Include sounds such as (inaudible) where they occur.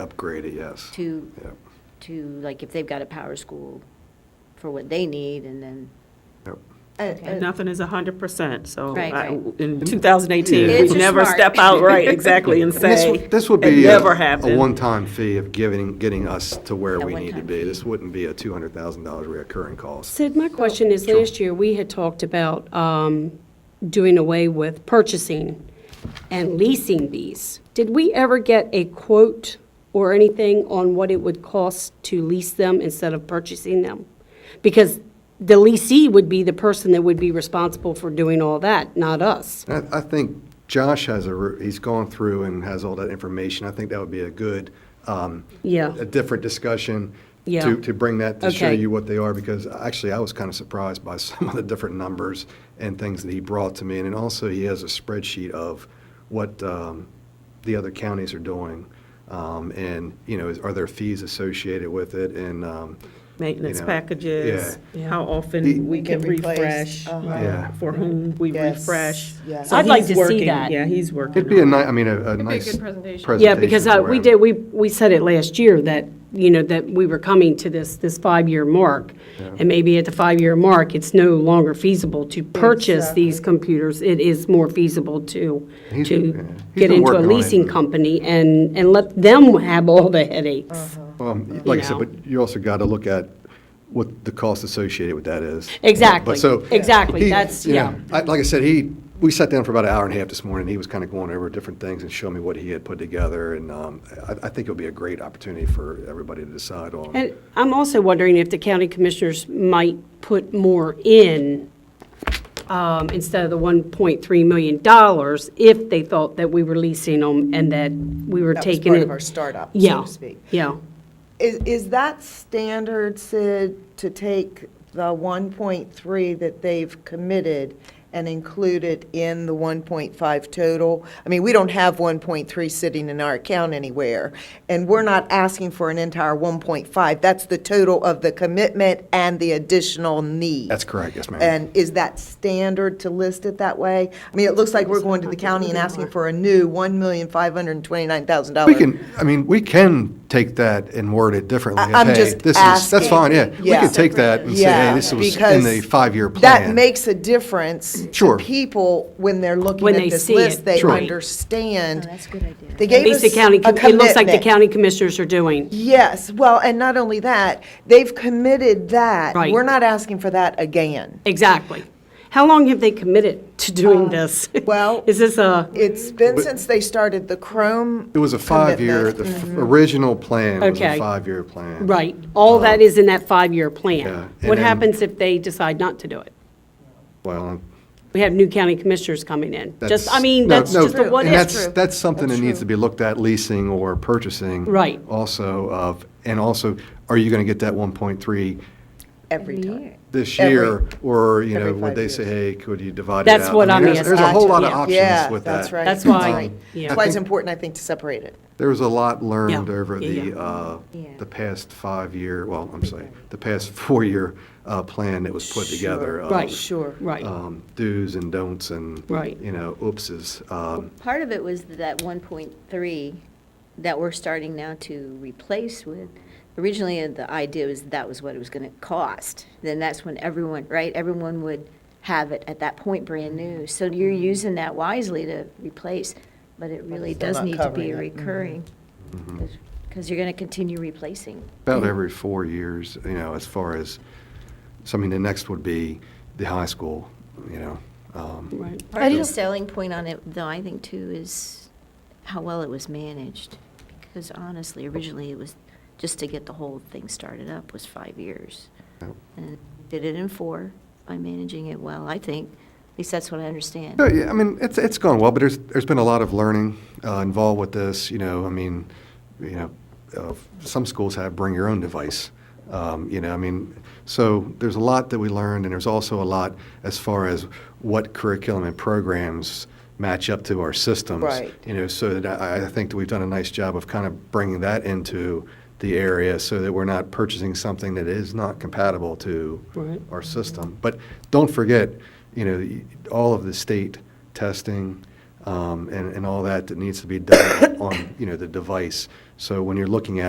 Upgrade it, yes. to, Yep, to, like, if they've got a power school for what they need, and then, yep. Uh, Okay. Nothing is hundred percent, so Right, I- right. in two thousand eighteen, Kids we are never smart. step out right exactly and And this say. would- This would it be a Never happened. a one-time fee of giving, getting us to where A we need to one-time be. fee. This wouldn't be a $200,000 recurring cost. Sid, my question is, last year, we had talked about um, doing away with purchasing and leasing these. Did we ever get a quote or anything on what it would cost to lease them instead of purchasing them? Because the leasee would be the person that would be responsible for doing all that, not us. I, I think Josh has a, re- he's gone through and has all that information. I think that would be a good, um, Yeah. a different discussion Yeah. to, to bring that, to show Okay. you what they are, because actually, I was kind of surprised by (laughs) some of the different numbers and things that he brought to me. And then also, he has a spreadsheet of what um, the other counties are doing. Um, And, you know, is- are there fees associated with it? And, um, Maintenance you know, packages, yeah. how The- often we We can can replace, refresh, uh-huh. Yeah. for whom we Yes, refresh. yes. So I'd like he's to see working- that. Yeah, he's working. it'd be a on it. ni, I mean, a- a be a nice good presentation. presentation. Yeah, because uh, for we him. did, we, we said it last year that, you know, that we were coming to this, this five-year mark. And maybe at the five-year mark, it's no longer feasible to purchase these computers. It is more feasible to, He's- yeah. to He's get been into a working on it. leasing company and, and let them have all the headaches. Um, Like I said, know. but you also got to look at what the cost associated with that is. Exactly, But so- exactly, he- that's- you know, yeah. I- Like I said, he, we sat down for about an hour and a half this morning, he was kind of going over different things and showing me what he had put together, and um, I I think it'll be a great opportunity for everybody to decide on. And I'm also wondering if the county commissioners might put more in, um, instead of the $1.3 million, if they thought that we were leasing them and that we were That was taking it. part of our startup, so Yeah, to speak. yeah. Is, is that standard, Sid, to take the 1.3 that they've committed and include it in the 1.5 total? I mean, we don't have 1.3 sitting in our account anywhere, and we're not asking for an entire 1.5. That's the total of the commitment and the additional need. That's correct, yes, ma'am. And is that standard to list it that way? I mean, it looks like we're going to the county and asking for a new $1,529,000. We can, I mean, we can take that and word it differently. I- I'm Hey, just this is- That's asking. fine, yeah. We Yeah. can take that and say, hey, Yeah, this was in because the five-year plan. That makes a difference. Sure. To people, when they're looking When at they this see it, list, they Sure. understand. oh, that's a good idea. They At gave least us the a county, com- commitment. it looks like the county commissioners are doing. Yes, well, and not only that, they've committed that. Right. We're not asking for that again. Exactly. How long have they committed to doing this? Uh, well- (laughs) Is this a, It's been since they started the Chrome. It was a five-year, commitment. the f- original plan was a Okay. five-year plan. right, all that is in that five-year Uh, Yeah, plan? and What then- happens if they decide not to do it? Well, We have new county commissioners coming in. Just, I That's- mean, no, that's no, just a what and if. that's- That's something that needs to be looked at, leasing or purchasing. Right. Also of, and also, are you going to get that 1.3 Every time. this Every- year? Or, you know, every would five they say, hey, could you divide it out? That's what I mean, I'm there's- There's a whole lot of asking, Yeah, options with that. that's right. That's why- right. yeah. That's why it's important, I think, to separate it. There was a lot learned Yeah, over yeah, the, yeah. uh, Yeah. the past five-year, well, I'm sorry, the past (laughs) four-year uh, plan that was put together. of, Right. Sure. Right. um, Do's and don'ts and, Right. you know, oopses. Um, Part of it was that 1.3 that we're starting now to replace with, originally, uh, the idea was that was what it was going to cost. Then that's when everyone, right, everyone would have it at that point, brand new. So you're Mm-hmm. using that wisely to replace, but it really still does not need to be covering it. Mm-hmm. recurring. Because you're going to continue replacing. About every four years, you know, as far as, so I mean, the next would be the high school, you know. um, Right. Part of the selling point on it, though, I think too, is how well it was managed. Because honestly, originally it was, just to get the whole thing started up was five years. And did it in four by managing it well, I think. At least that's what I understand. No, yeah, I mean, it's, it's gone well, but there's, there's been a lot of learning uh, involved with this, you know, I mean, you know, uh, some schools have bring your own device, um, you know, I mean, so there's a lot that we learned, and there's also a lot as far as what curriculum and programs match up to our systems. Right. You know, so that I, I think that we've done a nice job of kind of bringing that into the area so that we're not purchasing something that is not compatible to Right. our system. But don't forget, you know, y- all of the state testing um, and, and all that that needs to be done (coughs) on, you know, the device. So when you're looking at